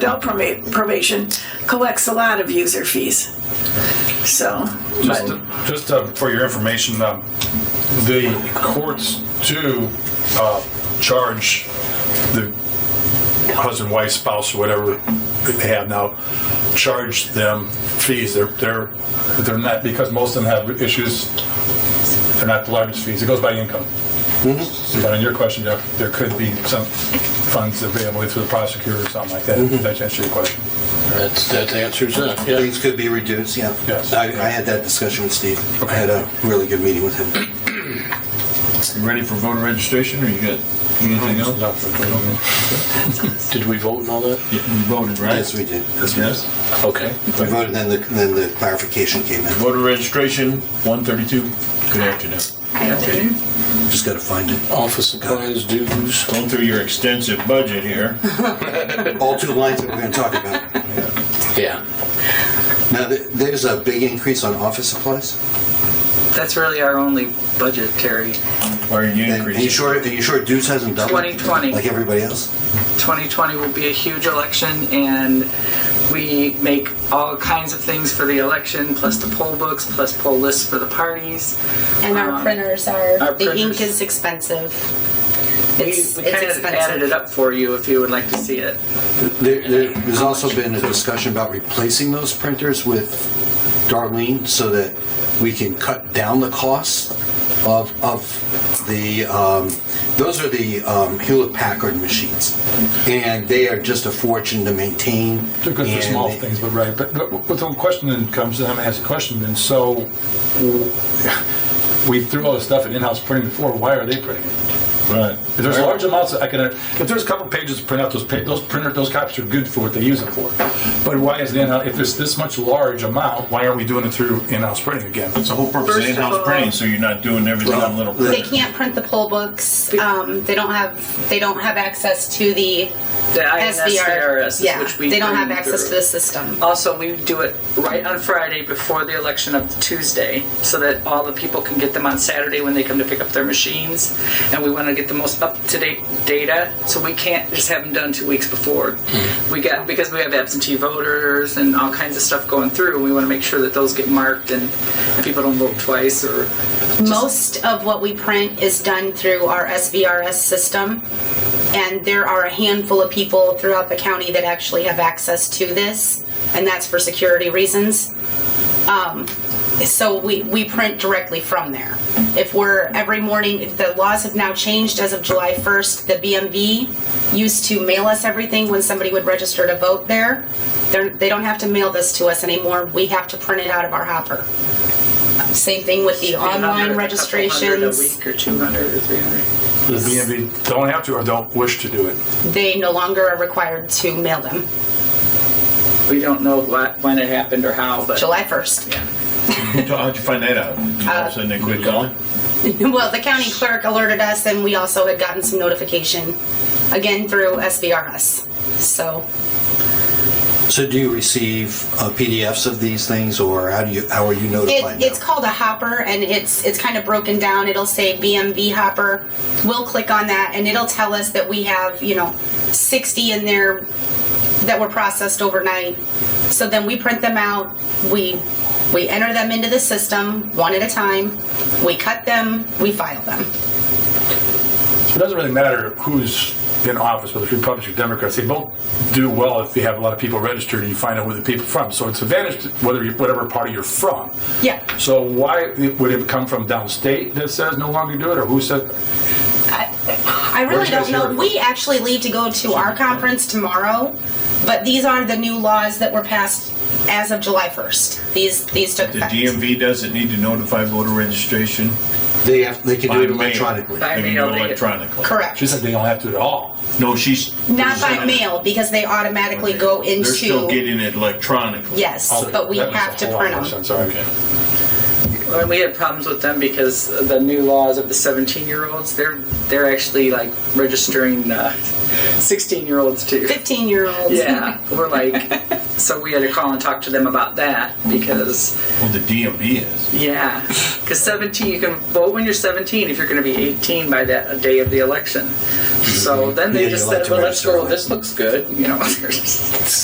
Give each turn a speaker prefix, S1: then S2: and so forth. S1: adult proba- probation collects a lot of user fees. So,
S2: Just,
S1: but,
S2: just uh, for your information, um, the courts do uh, charge the husband, wife, spouse, or whatever they have now, charge them fees. They're they're they're not because most of them have issues. They're not the largest fees. It goes by income. But on your question, Jeff, there could be some funds available through the prosecutor or something like that. If that answers your question.
S3: That's, that answers that, yeah.
S4: Things could be reduced, yeah.
S2: Yes.
S4: I, I had that discussion with Steve. I had a really good meeting with him.
S5: You ready for voter registration, or you got anything else?
S3: Did we vote and all that?
S5: You voted, right?
S4: Yes, we did.
S5: Yes.
S3: Okay.
S4: We voted, then the, then the clarification came in.
S5: Voter registration, 132. Good afternoon.
S4: Just gotta find it.
S3: Office supplies, dues.
S5: Going through your extensive budget here.
S4: All two lines that we're gonna talk about.
S3: Yeah.
S4: Now, th- there's a big increase on office supplies.
S6: That's really our only budgetary.
S5: Why are you
S4: And Are you
S5: increasing?
S4: sure, are you sure dues hasn't doubled?
S6: 2020.
S4: Like everybody else?
S6: 2020 will be a huge election, and we make all kinds of things for the election, plus the poll books, plus poll lists for the parties.
S7: And our
S6: Um,
S7: printers are,
S6: our
S7: the ink
S6: printers-
S7: is expensive.
S6: We,
S7: It's,
S6: we
S7: it's
S6: kind of added it
S7: expensive.
S6: up for you if you would like to see it.
S4: There, there, there's also been a discussion about replacing those printers with Darlene so that we can cut down the cost of, of the, um, those are the um, Hewlett Packard machines. And they are just a fortune to maintain.
S2: They're good for
S4: and
S2: small
S4: they-
S2: things, but right. But, but, but the question then comes, and I'm going to ask a question then. So we threw all this stuff at in-house printing before. Why are they printing it?
S5: Right.
S2: If there's large amounts, that I can. If there's a couple pages to print out, those pa- those printer those copies are good for what they use it for. But why is it in-house? If it's this much large amount, why aren't we doing it through in-house printing again?
S5: It's the whole purpose of
S6: First of
S5: in-house
S6: all-
S5: printing, so you're not doing everything on little
S7: They
S5: print.
S7: can't print the poll books. Um, they don't have, they don't have access to the
S6: The
S7: SVR.
S6: INSVRS,
S7: yeah,
S6: which we
S7: they don't have
S6: bring
S7: access to
S6: through.
S7: the system.
S6: Also, we do it right on Friday before the election of Tuesday so that all the people can get them on Saturday when they come to pick up their machines. And we want to get the most up to date data so we can't just have them done two weeks before. We got because we have absentee voters and all kinds of stuff going through. We want to make sure that those get marked and people don't vote twice or
S7: Most of what we print is done through our SVRS system. And there are a handful of people throughout the county that actually have access to this, and that's for security reasons. so we, we print directly from there. If we're every morning, the laws have now changed as of July 1st. The BMV used to mail us everything when somebody would register to vote there. They're, they don't have to mail this to us anymore. We have to print it out of our hopper. Same thing with the
S6: 300, a
S7: online
S6: couple hundred a
S7: registrations.
S6: week or 200 or 300.
S2: The BMV don't have to or don't wish to do it.
S7: They no longer are required to mail them.
S6: We don't know what when it happened or how, but
S7: July 1st.
S6: yeah.
S5: How'd you find that out?
S7: Uh,
S5: All of a sudden they quit calling?
S7: Well, the county clerk alerted us, and we also had gotten some notification again through SVRS. So
S4: So do you receive uh, PDFs of these things or how do you, how are you notified
S7: It,
S4: now?
S7: it's called a hopper, and it's it's kind of broken down. It'll say BMV hopper. We'll click on that, and it'll tell us that we have you know 60 in there that were processed overnight. So then we print them out. We we enter them into the system one at a time. We cut them. We file them.
S2: It doesn't really matter who's in office, whether it's Republicans or Democrats. They both do well if you have a lot of people registered and you find out where the people are from. So it's advantage to whether you, whatever party you're from.
S7: Yeah.
S2: So why would it come from downstate that says no longer do it, or who said?
S7: I
S2: Where'd
S7: really
S2: you guys
S7: don't know.
S2: hear it?
S7: We actually leave to go to our conference tomorrow, but these are the new laws that were passed as of July 1st. These these took
S5: The
S7: effect.
S5: DMV doesn't need to notify voter registration.
S4: They have, they can
S5: By
S4: do it
S5: mail.
S4: electronically.
S6: By
S5: They can do
S6: mail,
S5: it
S6: they get-
S5: electronically.
S7: Correct.
S2: She said they don't have to at all.
S5: No, she's.
S7: Not by mail because they automatically go
S5: They're still
S7: into,
S5: getting it electronically.
S7: yes, but we
S2: That makes
S7: have
S2: a
S7: to
S2: whole lot
S7: print
S2: more
S7: them.
S2: sense. All right.
S5: Okay.
S6: And we had problems with them because the new laws of the 17 year olds, they're they're actually like registering uh, 16 year olds too.
S7: 15 year olds.
S6: Yeah, we're like, So we had to call and talk to them about that because,
S5: Well, the DMV is.
S6: yeah, because 17, you can vote when you're 17 if you're going to be 18 by that day of the election. So then
S4: Yeah,
S6: they
S4: you
S6: just
S4: like
S6: said,
S4: to
S6: well, let's
S4: register
S6: go, this looks good, you know.